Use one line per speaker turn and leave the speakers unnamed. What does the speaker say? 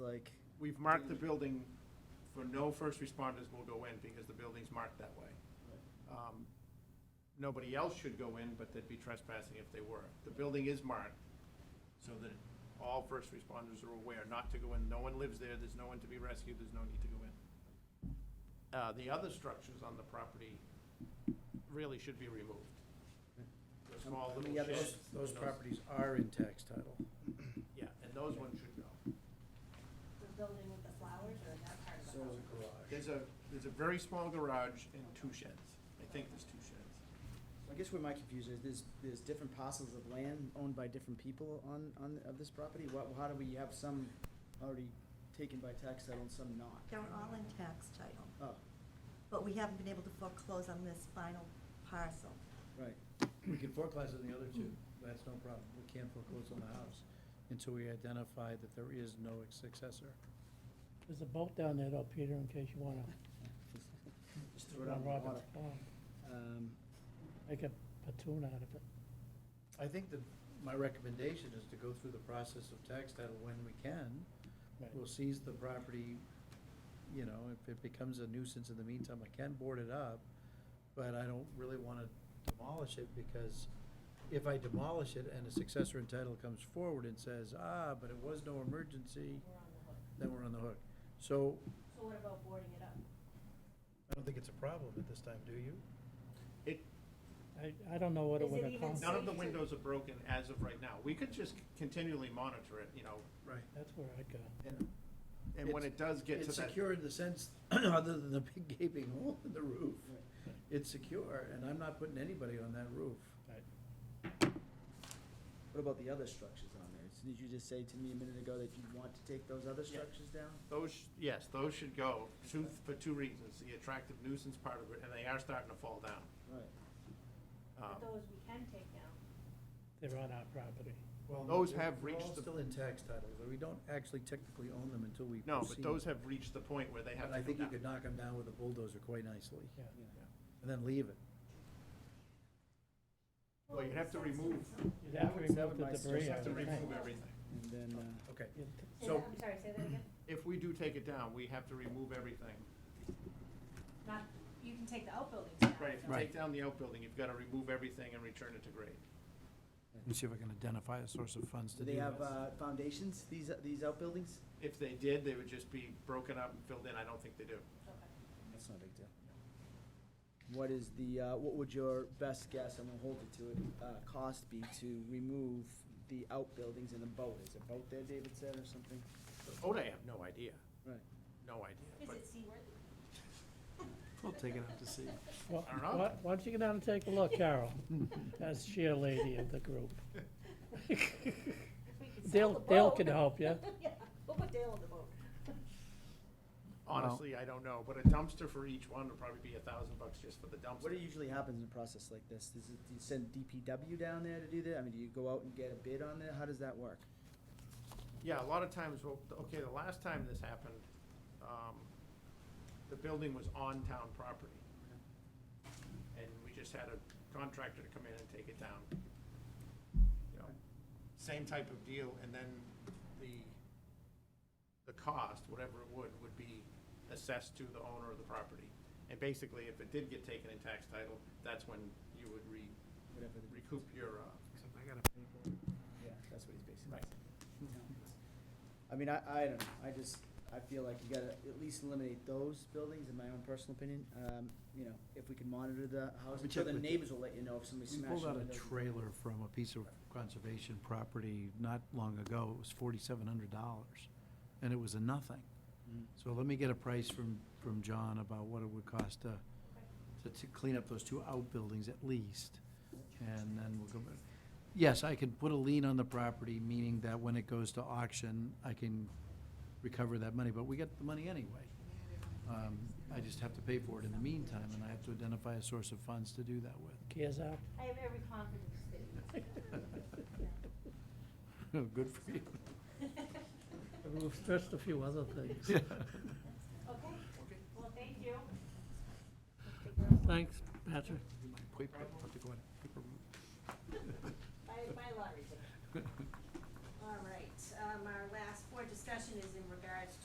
like,
We've marked the building for no first responders will go in because the building's marked that way. Um, Nobody else should go in, but they'd be trespassing if they were. The building is marked so that all first responders are aware not to go in. No one lives there, there's no one to be rescued, there's no need to go in. Uh, The other structures on the property really should be removed. The small
how
little
many others,
sheds.
those properties are in tax title?
Yeah, and those ones should go.
The building with the flowers or that part of the house?
garage.
There's a, there's a very small garage and two sheds. I think there's two sheds.
I guess where my confusion is, there's, there's different parcels of land owned by different people on, on, of this property? What, how do we have some already taken by tax title and some not?
They're all in tax title,
Oh,
but we haven't been able to foreclose on this final parcel.
right.
We can foreclose on the other two, that's no problem, we can't foreclose on the house until we identify that there is no successor.
There's a boat down there though, Peter, in case you wanna,
Just throw it out
on
in the
Robert's
water.
Pond,
Um,
make a platoon out of it.
I think that my recommendation is to go through the process of tax title when we can.
Right.
We'll seize the property, you know, if it becomes a nuisance in the meantime, I can board it up, but I don't really want to demolish it because if I demolish it and a successor in title comes forward and says, ah, but it was no emergency,
We're on the hook.
then we're on the hook. So
So what about boarding it up?
I don't think it's a problem at this time, do you?
It,
I, I don't know what it
Is it
would
even
accomplish.
none of the windows are broken as of right now. We could just continually monitor it, you know,
Right.
That's where I'd go.
and, and when it does get to
It's
that.
secure in the sense, other than the big gaping hole in the roof.
Right.
It's secure, and I'm not putting anybody on that roof.
Right.
What about the other structures on there? Did you just say to me a minute ago that you want to take those other structures down?
Those, yes, those should go, two, for two reasons, the attractive nuisance part of it, and they are starting to fall down.
Right.
Um,
But those we can take down.
They're on our property.
Well,
Those have reached
They're all
the-
still in tax title, but we don't actually technically own them until we.
No, but
proceed.
those have reached the point where they have to
But I
come
think you could
down.
knock them down with a bulldozer quite nicely,
Yeah.
Yeah.
Yeah.
and then leave it.
Well, you'd have to remove,
You'd have to
That would- that
remove
would
the
my
debris.
you
suggestion.
have
out
to
of the tank.
remove everything.
And then, uh,
Okay,
You'd-
Say
so.
that- I'm sorry, say that again?
If we do take it down, we have to remove everything.
Not, you can take the outbuildings down.
Right, if you take down the outbuilding, you've got to remove everything and return it to grade.
Let me see if I can identify a source of funds
do they have uh, foundations, these, these outbuildings?
If they did, they would just be broken up and filled in. I don't think they do.
Okay.
That's not a big deal. What is the, uh, what would your best guess, I'm gonna hold it to it, uh, cost be to remove the outbuildings and the boat? Is a boat there, David said, or something?
Oh, I have no idea,
Right.
no idea.
Is
But
it seaworthy?
We'll take it up to see.
Well,
I don't know.
why- Why don't you go down and take a look, Carol, as chair lady of the group?
We could sell
Dale,
the
Dale
boat.
can help you.
Yeah, we'll put Dale on the boat.
honestly, I don't know, but a dumpster for each one would probably be a thousand bucks just for the
What
dumpster.
usually happens in a process like this? Does it, do you send DPW down there to do that? I mean, do you go out and get a bid on that? How does that work?
Yeah, a lot of times, well, okay, the last time this happened, um, the building was on town property. And we just had a contractor to come in and take it down. You know, same type of deal, and then the, the cost, whatever it would, would be assessed to the owner of the property. And basically, if it did get taken in tax title, that's when you would re,
Whatever the-
recoup your, uh,
Yeah, that's what he's basically
Right.
saying. I mean, I, I don't know, I just, I feel like you gotta at least eliminate those buildings, in my own personal opinion. Um, you know, if we can monitor the house,
Let me
I'm sure
check
the
with-
neighbors will let you know if somebody's
We
smashing.
pulled out a
windows.
trailer from a piece of conservation property not long ago. It was forty-seven hundred dollars, and it was a nothing.
Mm.
So let me get a price from, from John about what it would cost to, to- to clean up those two outbuildings at least, and then we'll go back. Yes, I can put a lien on the property, meaning that when it goes to auction, I can recover that money, but we get the money anyway. Um, I just have to pay for it in the meantime, and I have to identify a source of funds to do that with.
Gears up.
I have every confidence that you.
Good for you.
We've stressed a few other things.
Okay, well, thank you.
Thanks, Patrick.
By, by lottery. All right, um, our last board discussion is in regards